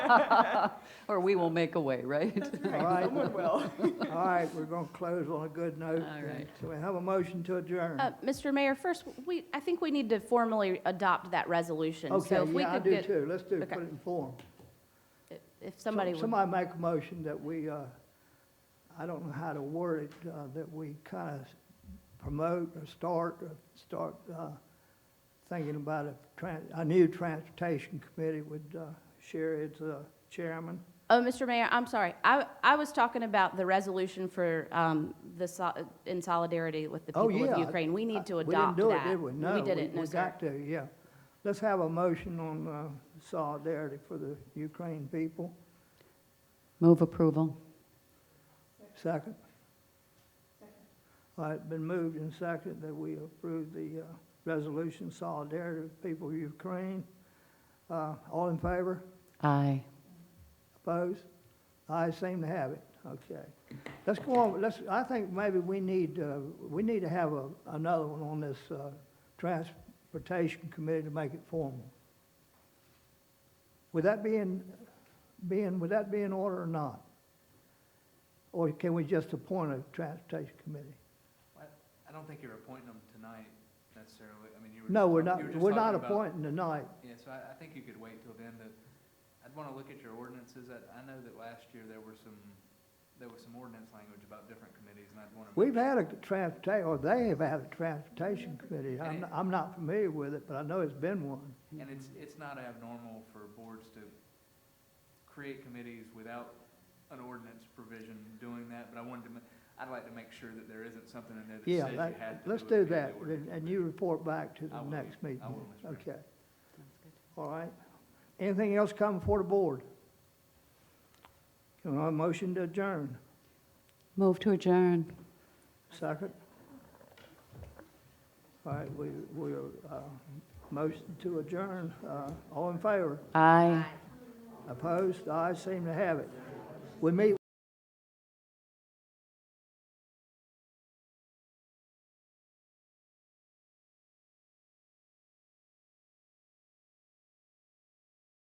Or we will make a way, right? All right. Someone will. All right, we're going to close on a good note. All right. So we have a motion to adjourn. Uh, Mr. Mayor, first, we, I think we need to formally adopt that resolution. So Okay, if we yeah, I could do get- too. Let's do, okay. put it in form. If somebody would, Somebody make a motion that we, uh, I don't know how to word it, uh, that we kind of promote or start, or start uh, thinking about a, tran- a new transportation committee with uh, Sherry as uh, chairman. oh, Mr. Mayor, I'm sorry. I, I was talking about the resolution for um, the, sol- in solidarity with the Oh, people of yeah. Ukraine. We need to We adopt that. didn't do it, did we? No. didn't, no, We sir. got to, yeah. Let's have a motion on uh, solidarity for the Ukraine people. Move approval. Second. All right, been moved and seconded that we approve the uh, resolution solidarity with people of Ukraine. Uh, All in favor? Aye. Opposed? Ayes seem to have it. Okay. Let's go on, let's, I think maybe we need, uh, we need to have a- another one on this uh, Transportation Committee to make it formal. Would that be in, be in, would that be in order or not? Or can we just appoint a Transportation Committee? I don't think you're appointing them tonight necessarily, I mean, you were. No, just we're talk- not, you were just we're not talking about- appointing tonight. Yeah, so I, I think you could wait till then, but I'd wanna look at your ordinances, I, I know that last year there were some, there was some ordinance language about different committees, and I'd wanna. We've had a transportation, or they have had a Transportation Committee. I'm, I'm not familiar with it, but I know it's been one. And it's, it's not abnormal for boards to create committees without an ordinance provision doing that, but I wanted to, ma- I'd like to make sure that there isn't something in there that Yeah, says you that- had to let's it do via the that, ordinance. and and you report back to I the will, next I meeting. will, Mr. Mayor. Okay, all right. Anything else come before the board? Can I have a motion to adjourn? Move to adjourn. Second? All right, we, we, uh, motion to adjourn, uh, all in favor? Aye. Opposed? The ayes seem to have it. We meet